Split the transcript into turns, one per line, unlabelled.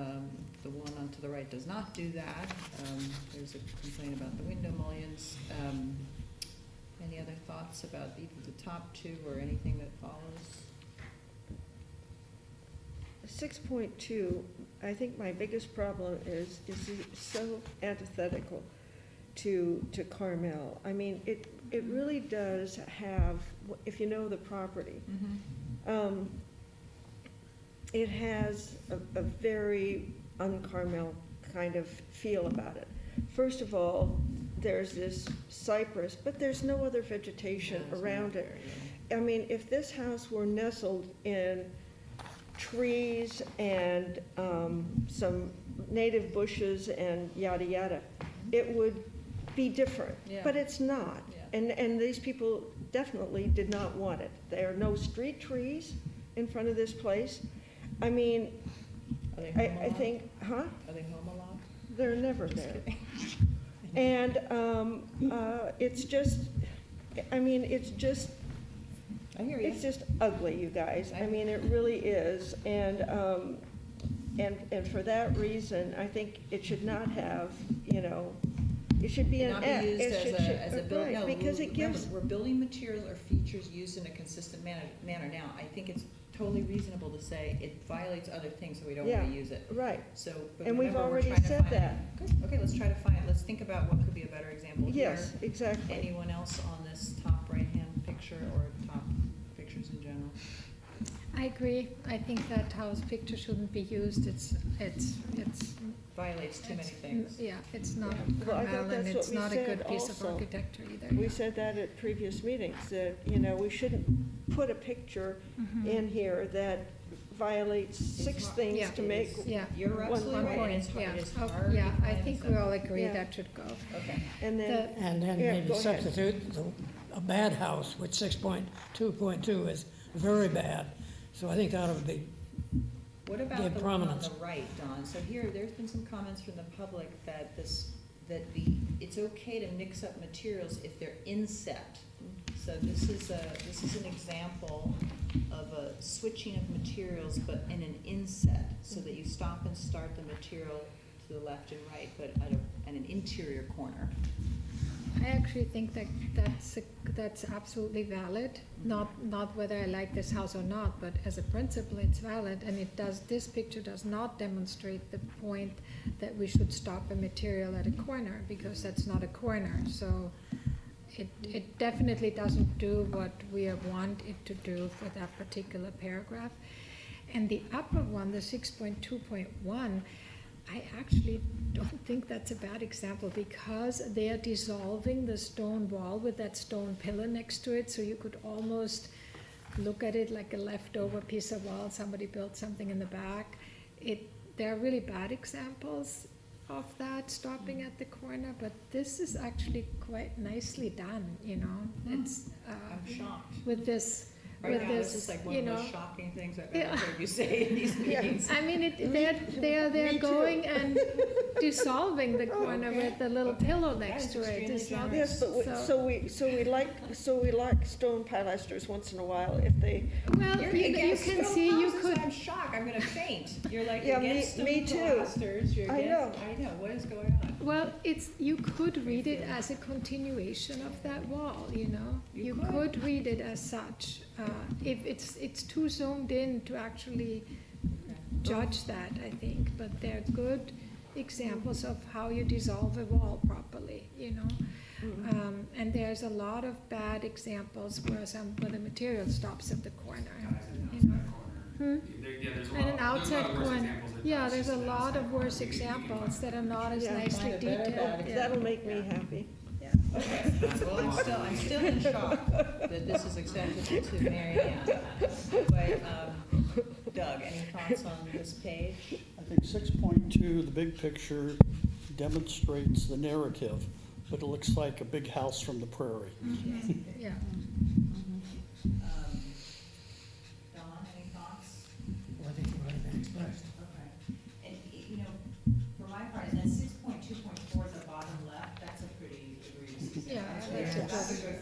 Um, the right does not do that. Um, There's a complaint about the window mullions. Um, Any other thoughts about either the top two or anything that follows?
Six point two, I think my biggest problem is, is it so antithetical to, to Carmel. I mean, it, it really does have, if you know the property, um, it has a, a very un-Carmel kind of feel about it. First of all, there's this cypress, but there's no other vegetation
Yeah, it's
around
not
it.
very, yeah.
I mean, if this house were nestled in trees and um, some native bushes and yada, yada, it would be different.
Yeah.
But it's not.
Yeah.
And, and these people definitely did not want it. There are no street trees in front of this place. I mean,
Are they
I,
home a
I
lot?
think, huh?
Are they home a lot?
They're never
Just
there.
kidding.
And um, uh, it's just, I mean, it's just
I hear you.
It's just ugly, you guys. I mean, it really is. And, um, and, and for that reason, I think it should not have, you know, it should be an
Not be
F.
used
It
as
should-
a, as a
should-
building, no,
Right, because it
remember,
gives,
we're building material or features used in a consistent manner, manner now. I think it's totally reasonable to say it violates other things, so we don't wanna
Yeah.
use it.
right.
So, but
And we've
remember, we're
already
trying to
said
find-
that.
Good, okay, let's try to find, let's think about what could be a better example here.
Yes, exactly.
Anyone else on this top right-hand picture or top pictures in general?
I agree. I think that house picture shouldn't be used. It's, it's, it's.
Violates too many
it's-
things.
Yeah, it's not
Yeah. Well, I think
Carmel and
that's what
it's
we
not a good
said
piece of
also.
architecture either.
We said that at previous meetings, that, you know, we shouldn't put a picture
Mhm.
in here that violates six
not-
things
yeah.
to make.
Yeah.
You're absolutely
One
right, and it's
point,
hard,
yeah.
it's
Oh,
hard.
Yeah,
to
I
find
think
some-
we all agree
Yeah.
that should go.
Okay,
And then,
The-
And then
Yeah,
maybe
go ahead.
substitute the- a bad house, which six point two point two is very bad. So I think that would be,
what about
Give
the one on
prominence.
the right, Don? So here, there's been some comments from the public that this, that the, it's okay to mix up materials if they're inset. So this is a, this is an example of a switching of materials, but in an inset, so that you stop and start the material to the left and right, but at a, at an interior corner.
I actually think that that's, a- that's absolutely valid.
Mm-hmm.
Not, not whether I like this house or not, but as a principle, it's valid. And it does, this picture does not demonstrate the point that we should stop a material at a corner because that's not a corner. So it, it definitely doesn't do what we have want it to do for that particular paragraph. And the upper one, the six point two point one, I actually don't think that's a bad example because they are dissolving the stone wall with that stone pillar next to it, so you could almost look at it like a leftover piece of wall, somebody built something in the back. It, there are really bad examples of that, stopping
Mm.
at the corner, but this is actually quite nicely done, you know?
Mm.
It's,
I'm
uh,
shocked.
with this,
Right
with
now, this is
this,
like one
you
of
know?
those shocking things I've
Yeah.
ever heard you say in these
Yeah.
meetings.
I mean, it, they're, they're,
me
they're
too.
going and dissolving the corner
Oh, Okay.
with the little
Okay.
pillow
That
next
is
to it.
extremely
It's not-
generous.
yes, but, we-
So-
so we, so we like, so we like stone pilasters once in a while if they
Well,
You're
you, you
against
can
stone
see, you
houses,
could,
I'm shocked, I'm gonna faint. You're like
Yeah, me-
against stone
me too.
pilasters, you're
I
against,
know.
I know, what is going on?
well, it's, you could read it as a continuation of that wall, you know?
You
You
could.
could read it as such, uh, if it's, it's too zoomed in to actually judge that, I think. But they're good examples of how you dissolve a wall properly, you know?
Mm-hmm.
Um, and there's a lot of bad examples where some, where the material stops at the corner.
guys in the
You know.
outside
Hmm?
corner. There, yeah, there's a lot.
And an
there's a lot
outside
of worse
corner.
examples than us,
Yeah,
just an outside corner. We can- we can find
there's a lot of worse examples that are not as
Yeah,
nicely
find a better
detailed.
bad
yeah.
That'll make me happy.
Okay, well, I'm still, I'm still in shock that this is acceptable to Mary Ann. But, um, Doug, any thoughts on this page?
I think six point two, the big picture demonstrates the narrative, but it looks like a big house from the prairie.
Mm-hmm.
Yeah,
Um, Don, any thoughts?
I think the right thing is first.
Okay, and, y- you know, for my part, that six point two point four at the bottom left, that's a pretty egregious
Yeah,
example.
that's a
That's a good